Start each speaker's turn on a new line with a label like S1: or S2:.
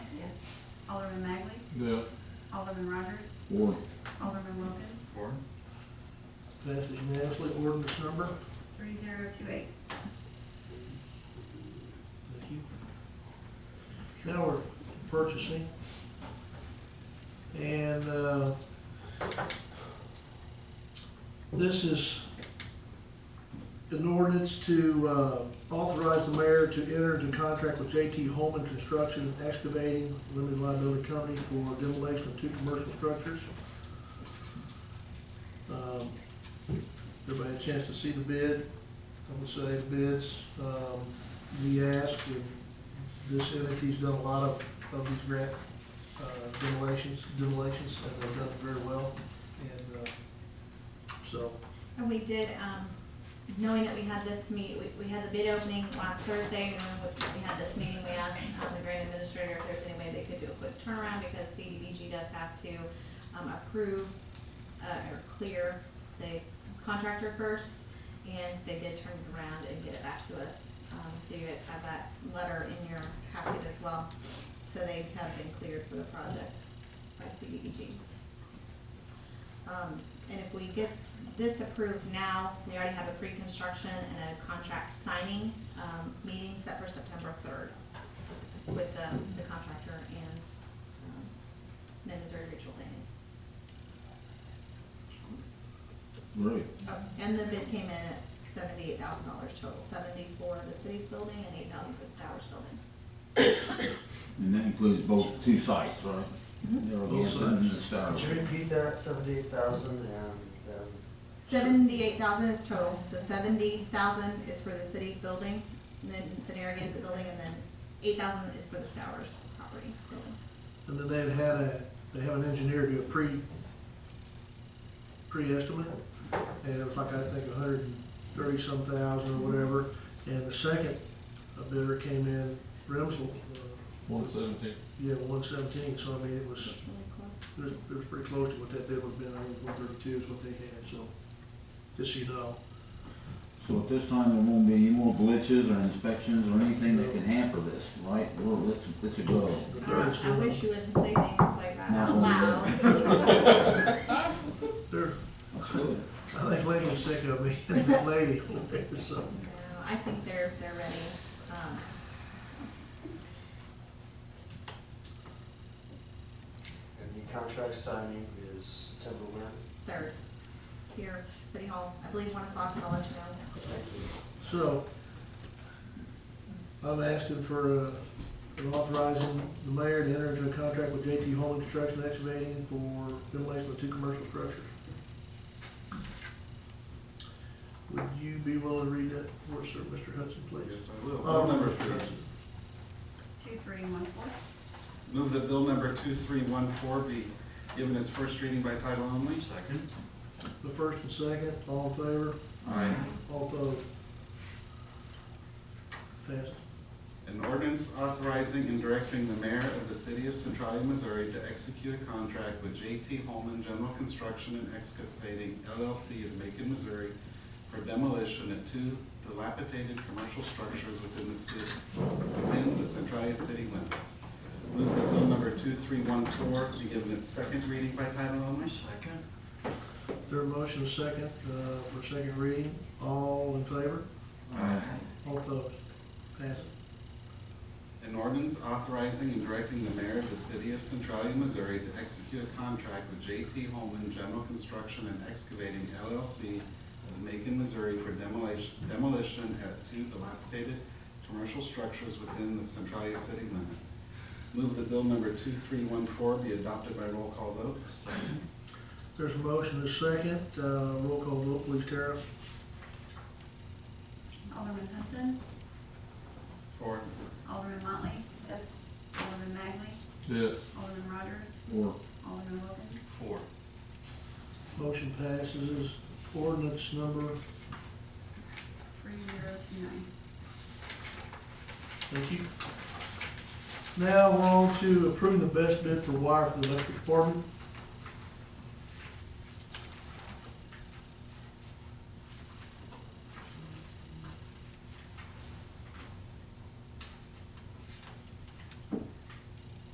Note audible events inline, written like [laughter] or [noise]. S1: Yeah.
S2: Alderman Rogers,
S3: Four.
S2: Alderman Wilkins,
S4: Four.
S5: Passes unanimously, ordinance number,
S2: three zero two eight.
S5: thank you. Now we're purchasing. And, uh, this is an ordinance to, uh, authorize the mayor to enter into contract with JT Holman Construction and Excavating Limited Liability Company for demolition of two commercial structures. Um, Everybody had a chance to see the bid, I'm gonna say the bids, um, we asked, and this entity's done a lot of, of these grant, uh, demolitions, demolitions, and they've done very well, and, uh, so,
S2: And we did, um, knowing that we had this meet, we, we had the bid opening last Thursday, and when we had this meeting, we asked um, the grant administrator if there's any way they could do a quick turnaround, because CDBG does have to, um, approve, uh, or clear the contractor first, and they did turn it around and get it back to us. Um, so you guys have that letter in your packet as well, so they have been cleared for the project by CDBG. Um, and if we get this approved now, we already have a pre-construction and a contract signing, um, meeting set for September third with the, the contractor and, um, the Missouri Regional Planning.
S3: Right.
S2: And the bid came in at seventy-eight thousand dollars total, seventy-four for the city's building and eight thousand for the Stowers building.
S3: And that includes both, two sites, right?
S2: Mhm.
S3: There are
S5: Both
S3: the Ascent and the Star.
S4: Could you repeat that, seventy-eight thousand and, um,
S2: Seventy-eight thousand is total, so seventy thousand is for the city's building, and then the Narragansett building, and then eight thousand is for the Stowers property building.
S5: and then they've had a, they have an engineer do a pre, pre-estimate, and it was like, I think, a hundred and thirty-some thousand or whatever, and the second bidder came in, Remsel, uh,
S1: One seventeen.
S5: yeah, one seventeen, so I mean, it was,
S2: That's really close.
S5: It was, it was pretty close to what that bid would have been, I think one thirty-two is what they had, so, just so you know.
S3: So at this time, there won't be any more glitches or inspections or anything that can hamper this, right? Well, let's, let's go.
S5: The third is
S2: I I wish you
S5: still,
S2: wouldn't say things like that
S3: No.
S2: out [laughs] loud.
S5: third,
S3: Let's do it.
S5: I think Lady was sick of me, [laughs] that lady, so,
S2: No, I think they're, they're ready. Um,
S4: and the contract signing is September when?
S2: Third, here, City Hall, I believe one o'clock, and I'll let you know.
S4: Thank you.
S5: so. I'm asking for, uh, an authorizing the mayor to enter into a contract with JT Home Construction Excavating for demolition of two commercial structures. Would you be willing to read that for us, sir, Mr. Hudson, please?
S6: Yes, I will.
S5: Oh,
S6: Bill number, please.
S2: Two, three, one, four.
S6: Move that bill number 2314 be given its first reading by title only. Second.
S5: The first and second, all in favor?
S6: Aye.
S5: All opposed? Passed.
S6: An ordinance authorizing and directing the mayor of the city of Centralia, Missouri to execute a contract with J.T. Holman General Construction and Excavating LLC of Macon, Missouri for demolition of two dilapidated commercial structures within the city, within the Centralia city limits. Move that bill number 2314 be given its second reading by title only. Second.
S5: There a motion second, uh, for second reading, all in favor?
S6: Aye.
S5: All opposed? Passed.
S6: An ordinance authorizing and directing the mayor of the city of Centralia, Missouri to execute a contract with J.T. Holman General Construction and Excavating LLC of Macon, Missouri for demolition, demolition at two dilapidated commercial structures within the Centralia city limits. Move that bill number two-three-one-four be adopted by roll call vote.
S5: There's a motion is second, uh, roll call vote, please, Tara.
S7: Alderman Hudson,
S6: Four.
S7: Alderman Motley. Yes. Alderman Magley,
S1: Yes.
S7: Alderman Rogers,
S3: Four.
S7: Alderman Wilkins.
S6: Four.
S5: Motion passes, ordinance number,
S7: Three zero two nine.
S5: thank you. Now, we're on to approving the best bid for wire for the electric department.